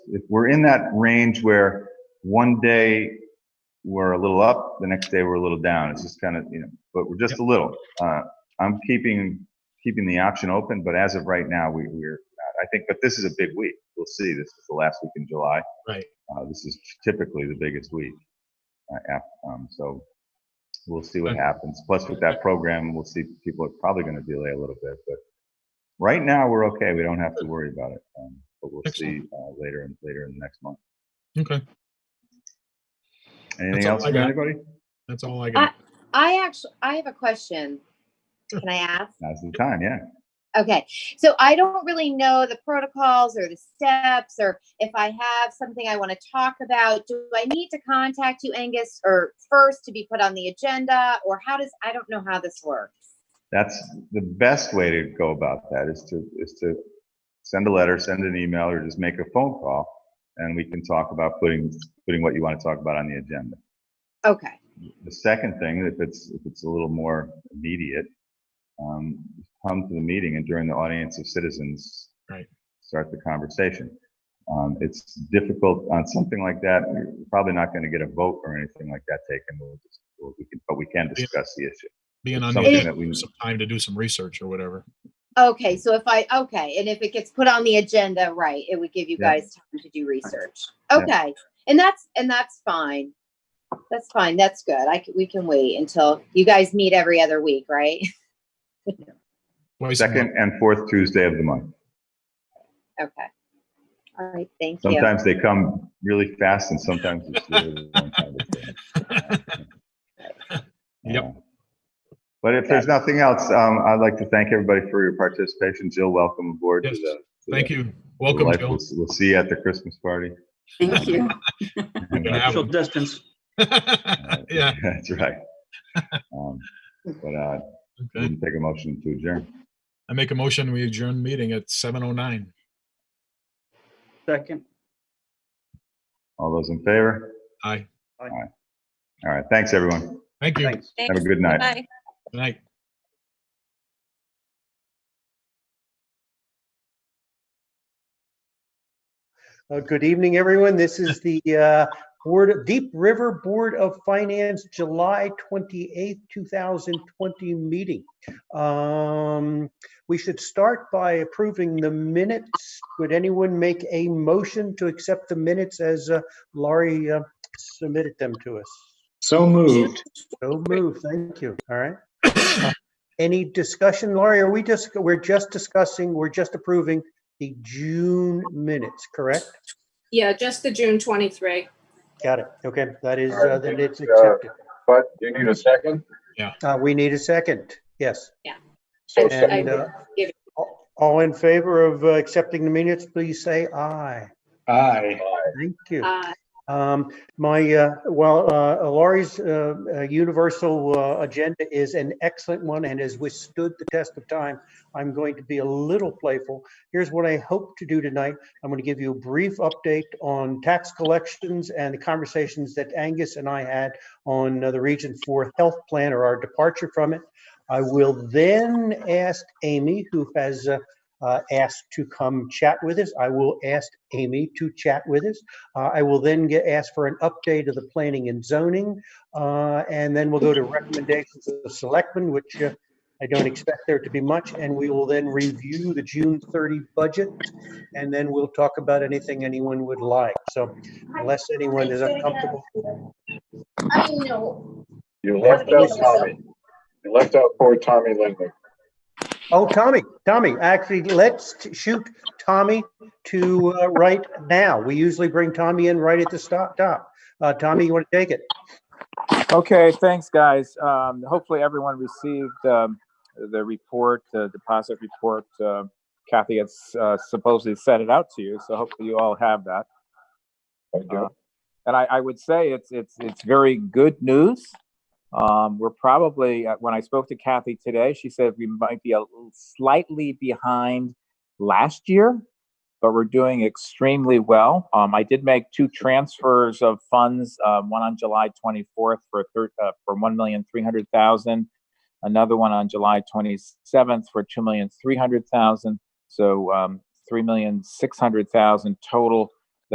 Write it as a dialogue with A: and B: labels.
A: if we're in that range where one day we're a little up, the next day we're a little down. It's just kind of, you know, but we're just a little. Uh, I'm keeping, keeping the option open, but as of right now, we, we're, not. I think, but this is a big week. We'll see. This is the last week in July.
B: Right.
A: Uh, this is typically the biggest week. Uh, af- um, so we'll see what
B: Okay.
A: happens. Plus with that program, we'll see people are probably going to delay a little bit, but right now we're okay. We don't have to worry about it. Um, but we'll see,
B: Excellent.
A: uh, later and later in the next month.
B: Okay,
A: Anything
B: That's all
A: else
B: I
A: from
B: got.
A: anybody?
B: that's all I got.
C: I actually, I have a question. Can I ask?
A: Now's the time, yeah.
C: Okay, so I don't really know the protocols or the steps, or if I have something I want to talk about. Do I need to contact you, Angus, or first to be put on the agenda, or how does, I don't know how this works.
A: That's the best way to go about that is to, is to send a letter, send an email, or just make a phone call. And we can talk about putting, putting what you want to talk about on the agenda.
C: Okay,
A: The second thing, if it's, if it's a little more immediate, um, come to the meeting and during the audience of citizens.
B: Right.
A: Start the conversation. Um, it's difficult on something like that. You're probably not going to get a vote or anything like that taken. We'll just, we'll- we can, but we can discuss the issue.
B: Being on,
A: Something
B: the-
A: that we,
B: some time to do some research or whatever.
C: okay, so if I, okay, and if it gets put on the agenda, right, it would give you
A: Yeah.
C: guys time to do research.
A: Yeah.
C: Okay, and that's, and that's fine. That's fine, that's good. I, c- we can wait until, you guys meet every other week, right?
B: Twice a month.
A: second and fourth Tuesday of the month.
C: Okay. All right, thank you.
A: Sometimes they come really fast and sometimes it's really a long time.
B: Yep.
A: Yeah. But if there's nothing else, um, I'd like to thank everybody for your participation. Jill, welcome aboard. to
B: Yes,
A: the- to the-
B: Thank you.
A: to
B: Welcome,
A: life.
B: Jill.
A: We'll, we'll see you at the Christmas party.
D: Thank you.
A: And, uh,
B: have
E: Social
B: them.
E: distance.
A: uh,
B: Yeah.
A: That's right. Um, But, uh, we
B: okay.
A: can take a motion to adjourn.
B: I make a motion, we adjourn meeting at 7:09.
E: Second.
A: All those in favor?
B: Aye.
A: All right, thanks, everyone.
B: Thank you. Good
E: Thanks.
A: Have a good night.
B: night.
F: Uh, Good evening, everyone. This is the uh, Board, of- Deep River Board of Finance, July 28th, 2020 meeting. Um, We should start by approving the minutes. Would anyone make a motion to accept the minutes as uh, Laurie uh, submitted them to us?
G: So moved.
F: So moved. Thank you. All right. Uh, Any discussion, Laurie? Are we just, we're just discussing, we're just approving the June minutes, correct?
H: Yeah, just the June 23.
F: Got it. Okay, that is,
G: Alright,
F: uh, then it's
G: uh,
F: accepted.
G: But you need a second?
F: Uh, We need a second, yes.
G: So
H: I-
G: second.
F: And uh,
H: give it.
F: all- all in favor of uh, accepting the minutes, please say aye.
G: Aye.
F: Thank you.
H: Uh,
F: Um, My, uh, well, uh, Laurie's uh, uh, universal uh, agenda is an excellent one and has withstood the test of time. I'm going to be a little playful. Here's what I hope to do tonight. I'm going to give you a brief update on tax collections and the conversations that Angus and I had on uh, the Region 4 Health Plan or our departure from it. I will then ask Amy, who has uh, uh, asked to come chat with us. I will ask Amy to chat with us. Uh, I will then get, asked for an update of the planning and zoning, uh, and then we'll go to recommendations of the selectmen, which uh, I don't expect there to be much, and we will then review the June 30 budget, and then we'll talk about anything anyone would like. So unless anyone is uncomfortable,
H: I know.
G: You left out Tommy. You left out poor Tommy Lindley.
F: oh, Tommy, Tommy, actually, let's t- shoot Tommy to uh, right now. We usually bring Tommy in right at the stop, top. Uh, Tommy, you want to take it?
I: Okay, thanks, guys. Um, hopefully, everyone received um, the report, the deposit report. Uh, Kathy had uh, supposedly sent it out to you, so hopefully, you all have that. Uh,
G: I do.
I: And I, I would say it's it's it's very good news. Um, we're probably uh, when I spoke to Kathy today, she said we might be a little slightly behind last year, but we're doing extremely well. Um, I did make two transfers of funds, um, one on July 24th for thir- uh, for 1,300,000, another one on July 27th for 2,300,000. So um, 3,600,000 total